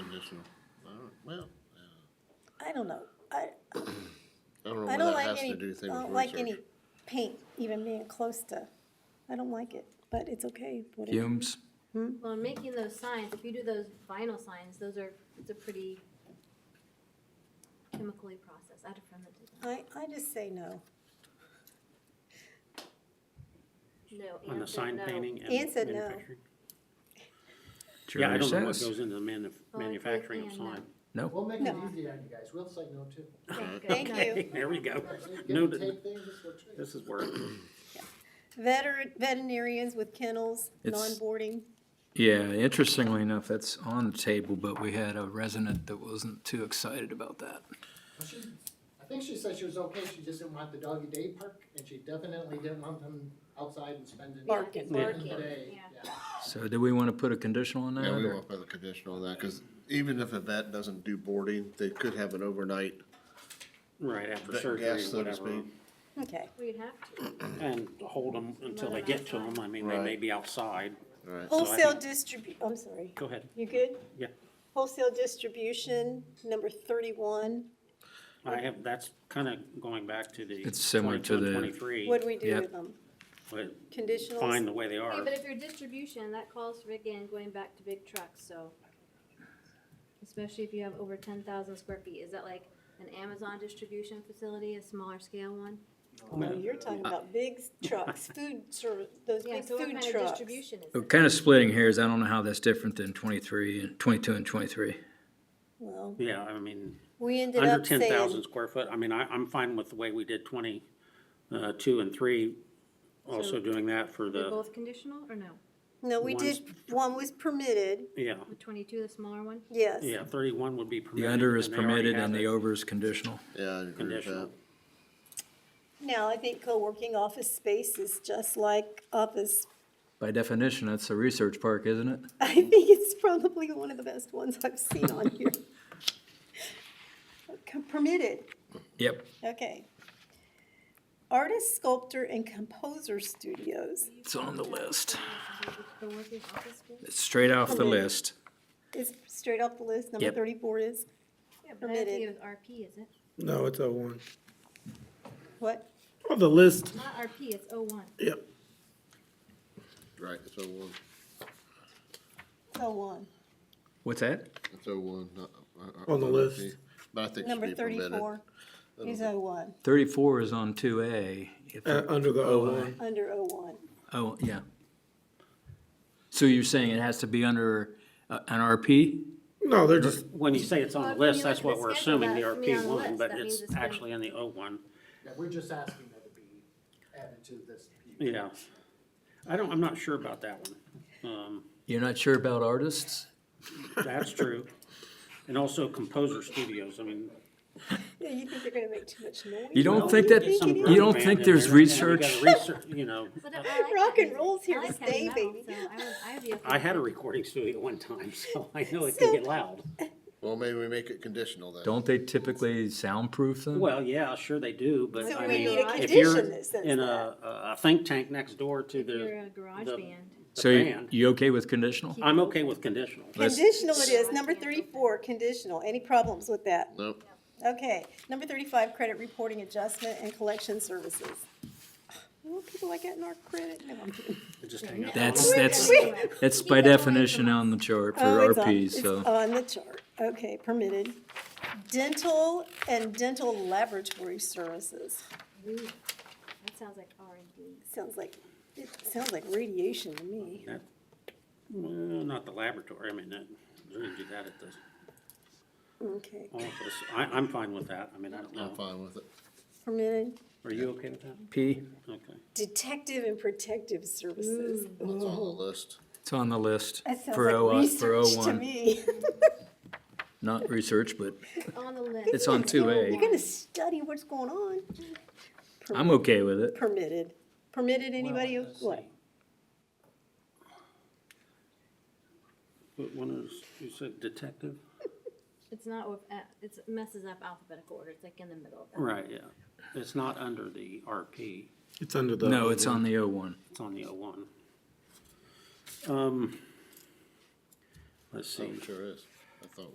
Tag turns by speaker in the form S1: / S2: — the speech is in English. S1: Conditional, all right, well,
S2: I don't know. I,
S1: I don't know
S2: I
S1: what
S2: don't
S1: that
S2: like
S1: has
S2: any,
S1: to
S2: I
S1: do with things
S2: don't like any paint even being close to, I don't like it, but it's okay. whatever.
S3: Fumes.
S4: Well, in making those signs, if you do those vinyl signs, those are, it's a pretty chemically processed. I had a friend that did that.
S2: I, I just say no.
S4: No,
S5: On the
S4: Ann said
S5: sign
S4: no.
S5: painting
S2: Ian
S5: and
S2: said no.
S5: manufacturing?
S3: Jury
S5: Yeah, I don't know what
S3: says
S5: goes into the manu-
S2: Oh,
S4: Well, I think
S5: manufacturing of
S4: Ian
S5: sign.
S3: no.
S6: We'll make it
S2: No.
S6: easy on you guys, we'll say no too.
S4: Thank
S2: Thank
S4: God.
S2: you.
S5: Okay, There we go.
S6: Actually, if
S5: No,
S6: you
S5: th-
S6: take things, this will treat.
S5: this is work.
S2: Veter, veterinarians with kennels,
S3: It's-
S2: non-boarding.
S3: Yeah, interestingly enough, that's on the table, but we had a resident that wasn't too excited about that.
S6: Well, she- I think she said she was okay, she just didn't want the doggy day park, and she definitely didn't want them outside and spending.
S2: Barking.
S6: spending the
S4: Barking,
S6: day,
S4: yeah.
S6: yeah.
S3: So do we want to put a conditional on that?
S1: Yeah, we
S3: or-
S1: won't put a conditional on that, cause even if a vet doesn't do boarding, they could have an overnight
S5: Right, after
S1: vet
S5: surgery or
S1: guest, so to
S5: whatever.
S1: speak.
S2: Okay,
S4: We'd have to.
S5: And hold them until they get to them. I mean, they may
S1: Right.
S5: be outside.
S1: Right,
S2: wholesale distribu, I'm sorry,
S5: Go ahead.
S2: you good?
S5: Yeah.
S2: Wholesale distribution, number thirty-one,
S5: I have, that's kind of going back to the
S3: It's similar to
S5: 22 and
S3: the-
S5: 23,
S2: what do we do
S3: Yep.
S2: with them?
S5: but fine
S2: Conditionals?
S5: the way they
S4: Hey,
S5: are.
S4: but if you're distribution, that calls for, again, going back to big trucks, so. Especially if you have over ten thousand square feet, is that like an Amazon distribution facility, a smaller scale one?
S2: No, oh, you're talking about big trucks, food service, those
S4: Yeah,
S2: big
S4: so what
S2: food
S4: kind of
S2: trucks.
S4: distribution is
S3: But
S4: it?
S3: Kind of splitting hairs, I don't know how that's different than twenty-three and twenty-two and twenty-three.
S2: Well,
S5: Yeah, I mean,
S2: we ended
S5: under
S2: up
S5: ten thousand
S2: saying,
S5: square foot. I mean, I, I'm fine with the way we did twenty, uh, two and three. Also doing that for
S4: They're
S5: the,
S4: both conditional or no?
S2: no, we
S5: ones-
S2: did, one was permitted,
S5: yeah,
S4: The twenty-two, the smaller one?
S2: yes.
S5: yeah, thirty-one would be
S3: The
S5: permitted.
S3: under is
S5: and they already
S3: permitted
S5: have
S3: and the
S5: it
S3: over is conditional.
S1: yeah, I agree with that.
S5: Conditional.
S2: Now, I think co-working office space is just like office.
S3: By definition, that's a research park, isn't it?
S2: I think it's probably one of the best ones I've seen on here. Com- Permitted,
S3: Yep.
S2: okay. Artist, sculptor, and composer studios.
S3: It's on the list.
S4: The workers' office space?
S3: It's straight off the
S2: Permitted.
S3: list.
S2: Is straight off the list, number
S3: Yep.
S2: thirty-four is,
S4: Yeah, but I don't think
S2: Permitted.
S4: it was RP, is it?
S7: No, it's O one.
S2: what?
S7: On the list,
S4: Not RP, it's O one.
S7: yep.
S1: Right, it's oh one,
S2: So on.
S3: What's that?
S1: it's oh one, not. uh, uh,
S7: On the
S1: uh,
S7: list.
S1: okay. But I think it should
S2: Number
S1: be permitted.
S2: thirty-four is O one,
S3: Thirty-four is on two A.
S7: Uh, under the O one.
S2: under O one.
S3: Oh, yeah. So you're saying it has to be under uh, an RP?
S7: No, they're just,
S5: When you say it's on
S4: Well,
S5: the
S4: when
S5: list,
S4: you
S5: that's
S4: look at the
S5: what we're
S4: schedule,
S5: assuming, the
S4: that's me on
S5: RP
S4: the
S5: one,
S4: list.
S5: but
S4: That means
S5: it's
S4: it's been-
S5: actually in the O one,
S6: Yeah, we're just asking that it be added to this.
S5: yeah. I don't, I'm not sure about that one. Um,
S3: You're not sure about artists?
S5: that's true. And also composer studios, I mean,
S2: Yeah, you think they're gonna make too much noise?
S3: You don't
S5: Well,
S3: think
S5: you
S3: that,
S5: get some
S2: you
S5: rock
S3: don't
S5: band
S3: think
S5: in
S3: there's
S5: there, and you gotta
S3: research?
S5: research- You know,
S4: But uh, I like
S2: Rock and
S4: that music.
S2: roll's here
S4: I
S2: to
S4: like heavy
S2: stay,
S4: metal,
S2: baby.
S4: so I would, I'd be okay.
S5: I had a recording studio one time, so I know it can get loud.
S1: Well, maybe we make it conditional then.
S3: Don't they typically soundproof them?
S5: Well, yeah, sure they do, but
S2: So
S5: I
S2: we
S5: mean,
S2: need a
S5: if you're
S2: condition that says
S5: in a, a think tank next door to
S4: If you're
S5: the
S4: a garage
S5: the-
S4: band.
S5: the
S3: So you,
S5: band,
S3: you okay with conditional?
S5: I'm okay with conditional.
S3: Let's-
S2: Conditional it is, number thirty-four, conditional. Any problems with that?
S1: Nope,
S2: Okay, number thirty-five, credit reporting adjustment and collection services. Well, people like getting our credit, no, I'm kidding.
S5: Just hang up.
S3: That's, that's,
S4: Anyway,
S3: that's by definition on the chart for
S2: Oh, it's on-
S3: RPs,
S2: it's
S3: so.
S2: On the chart, okay, permitted. Dental and dental laboratory services,
S4: ooh, That sounds like R and D.
S2: sounds like, it sounds like radiation to me.
S5: Well, not the laboratory, I mean, that, we can do that at the
S2: Okay,
S5: office. I, I'm fine with that, I mean, I don't
S1: I'm
S5: know.
S1: fine with it.
S2: permitted.
S5: Are you okay with that?
S3: P,
S5: Okay.
S2: Detective and protective services.
S1: It's on the list.
S3: it's on the list
S2: That sounds
S3: Mm. for O,
S2: like
S3: for O
S2: research to
S3: one.
S2: me.
S3: Not research, but
S4: On the list.
S3: it's on two
S2: You're
S3: A.
S2: gonna study what's going on.
S3: I'm okay with it.
S2: Permitted. Permitted anybody,
S5: Well, let's
S2: what?
S5: see. What one is, you said detective?
S4: It's not, with a- it's it messes up alphabetical order. It's like in the middle of that.
S5: Right, yeah. It's not under the RP,
S7: it's under the.
S3: No, it's on the O one.
S5: it's on the O one. Um, let's see,
S1: Sure is. I thought